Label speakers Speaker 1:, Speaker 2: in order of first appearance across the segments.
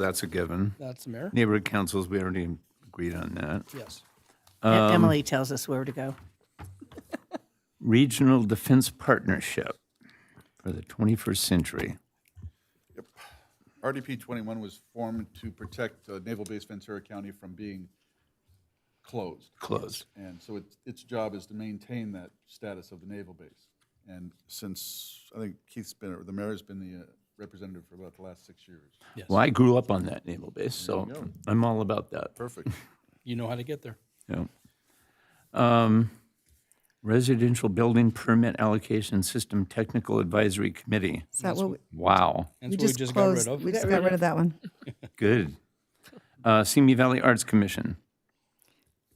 Speaker 1: That's a given.
Speaker 2: That's the mayor?
Speaker 1: Neighborhood councils, we already agreed on that.
Speaker 2: Yes.
Speaker 3: E- Emily tells us where to go.
Speaker 1: Regional Defense Partnership for the 21st Century.
Speaker 4: RDP 21 was formed to protect uh, Naval Base Ventura County from being closed.
Speaker 1: Closed.
Speaker 4: And so its, its job is to maintain that status of the naval base. And since, I think Keith's been, or the mayor's been the uh, representative for about the last six years.
Speaker 1: Well, I grew up on that naval base, so I'm all about that.
Speaker 4: Perfect.
Speaker 2: You know how to get there.
Speaker 1: Yeah. Um, Residential Building Permit Allocation System Technical Advisory Committee.
Speaker 5: Is that what we-
Speaker 1: Wow,
Speaker 2: That's
Speaker 5: we
Speaker 2: what we
Speaker 5: just
Speaker 2: just got rid
Speaker 5: closed?
Speaker 2: of.
Speaker 5: We just got rid of that one.
Speaker 1: good. Uh, Simi Valley Arts Commission.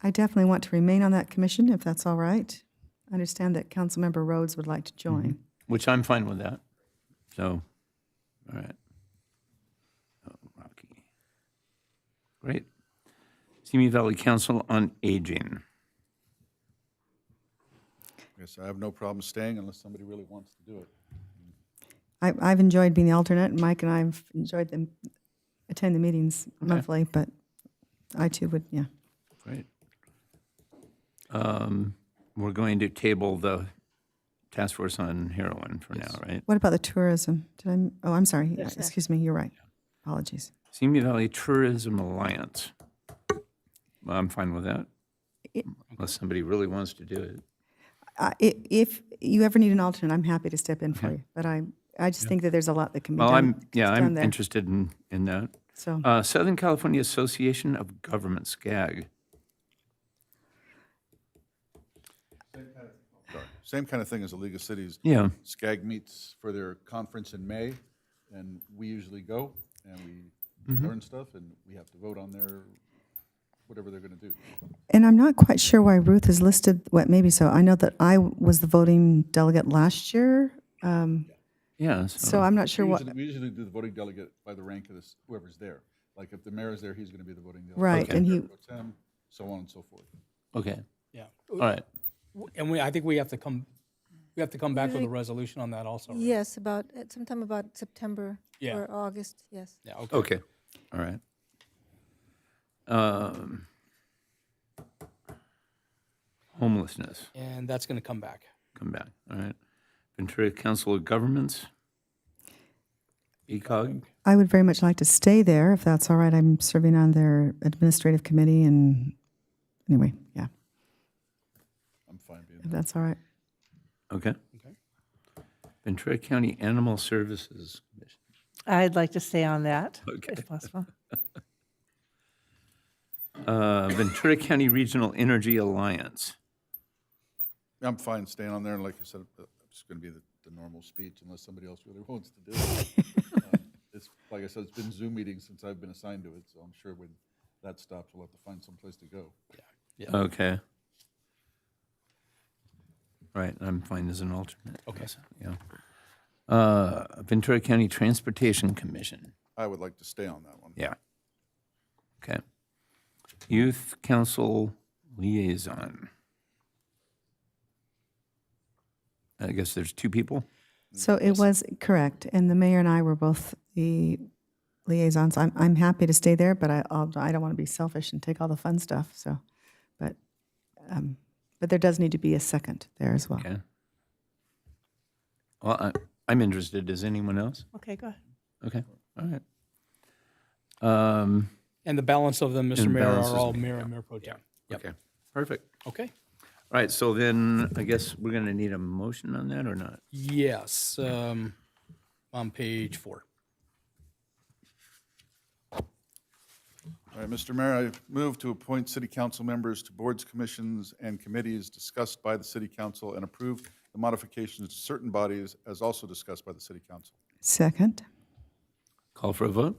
Speaker 5: I definitely want to remain on that commission, if that's all right. I understand that Councilmember Rhodes would like to join.
Speaker 1: Which I'm fine with that. So, all right. Oh, Rocky. Great. Simi Valley Council on Aging.
Speaker 4: Yes, I have no problem staying unless somebody really wants to do it.
Speaker 5: I, I've enjoyed being the alternate, and Mike and I've enjoyed them, attend the meetings monthly, but I too would, yeah.
Speaker 1: Great. Um, We're going to table the Task Force on Heroin for now, right?
Speaker 5: What about the tourism? Did I, m- oh, I'm sorry. Yeah, Excuse me, you're right. Apologies.
Speaker 1: Simi Valley Tourism Alliance. Well, I'm fine with that,
Speaker 5: It-
Speaker 1: unless somebody really wants to do it.
Speaker 5: Uh, i- If you ever need an alternate, I'm happy to step in for you, but I, I just think that there's a lot that can be
Speaker 1: Well, I'm,
Speaker 5: done.
Speaker 1: yeah,
Speaker 5: done
Speaker 1: I'm
Speaker 5: there.
Speaker 1: interested in, in that.
Speaker 5: So
Speaker 1: Uh, Southern California Association of Government, SCAG.
Speaker 4: Same kind of thing as the League of Cities.
Speaker 1: Yeah,
Speaker 4: SCAG meets for their conference in May, and we usually go, and we learn stuff, and we have to vote on their, whatever they're going to do.
Speaker 5: And I'm not quite sure why Ruth is listed, what, maybe so. I know that I was the voting delegate last year, um,
Speaker 1: yeah,
Speaker 5: so
Speaker 1: so,
Speaker 5: I'm not sure
Speaker 4: We
Speaker 5: what,
Speaker 4: usually- We usually do the voting delegate by the rank of this, whoever's there. Like, if the mayor is there, he's going to be the voting delegate.
Speaker 5: right, and he,
Speaker 4: Pro tem, So on and so forth.
Speaker 1: okay,
Speaker 2: Yeah.
Speaker 1: all right.
Speaker 2: And we, I think we have to come, we have to come back with a resolution on that also. right?
Speaker 6: Yes, about, at sometime about September
Speaker 2: Yeah.
Speaker 6: or August, yes.
Speaker 2: Yeah, okay.
Speaker 1: Okay. All right. Um, Homelessness,
Speaker 2: And that's going to come back.
Speaker 1: come back, all right. Ventura Council of Governments. E ECOG,
Speaker 5: I would very much like to stay there, if that's all right. I'm serving on their administrative committee and, anyway, yeah,
Speaker 4: I'm fine being
Speaker 5: if that's all right.
Speaker 1: okay. Ventura County Animal Services Commission.
Speaker 3: I'd like to stay on that, if possible.
Speaker 1: Uh, Ventura County Regional Energy Alliance.
Speaker 4: there. I'm fine staying on there, and like I said, uh, it's going to be the, the normal speech unless somebody else really wants to do it. Um, It's, like I said, it's been Zoom meetings since I've been assigned to it, so I'm sure when that stops, we'll have to find someplace to go.
Speaker 1: Okay. Right, I'm fine as an alternate.
Speaker 2: Okay.
Speaker 1: Yeah. Uh, Ventura County Transportation Commission.
Speaker 4: I would like to stay on that one.
Speaker 1: Yeah. Okay. Youth Council Liaison. I guess there's two people?
Speaker 5: So it was correct, and the mayor and I were both the liaisons. I'm, I'm happy to stay there, but I, I'll- I don't want to be selfish and take all the fun stuff, so, but, um, but there does need to be a second there as well.
Speaker 1: Okay. Well, I, I'm interested. Is anyone else?
Speaker 3: Okay, go ahead.
Speaker 1: Okay, all right. Um,
Speaker 2: And the balance of them, Mr.
Speaker 1: And
Speaker 2: Mayor,
Speaker 1: balance is
Speaker 2: are all
Speaker 1: me,
Speaker 2: mayor and mayor pro tem. Yep.
Speaker 1: okay, perfect.
Speaker 2: Okay.
Speaker 1: All right, so then I guess we're going to need a motion on that or not?
Speaker 2: Yes, um, on page four.
Speaker 4: All right, Mr. Mayor, I move to appoint city council members to boards, commissions, and committees discussed by the city council and approve the modifications to certain bodies as also discussed by the city council.
Speaker 5: Second?
Speaker 1: Call for a vote?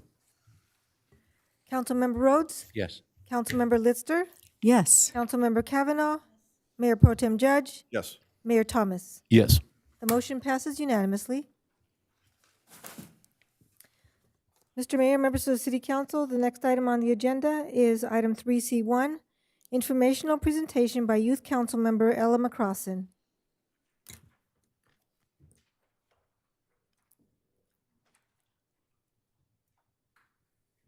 Speaker 6: Councilmember Rhodes?
Speaker 1: Yes.
Speaker 6: Councilmember Lister?
Speaker 5: Yes.
Speaker 6: Councilmember Kavanaugh? Mayor Pro Tem Judge?
Speaker 4: Yes.
Speaker 6: Mayor Thomas?
Speaker 1: Yes.
Speaker 6: The motion passes unanimously. Mr. Mayor, members of the City Council, the next item on the agenda is item 3C1, informational presentation by Youth Council Member Ella McCrossin.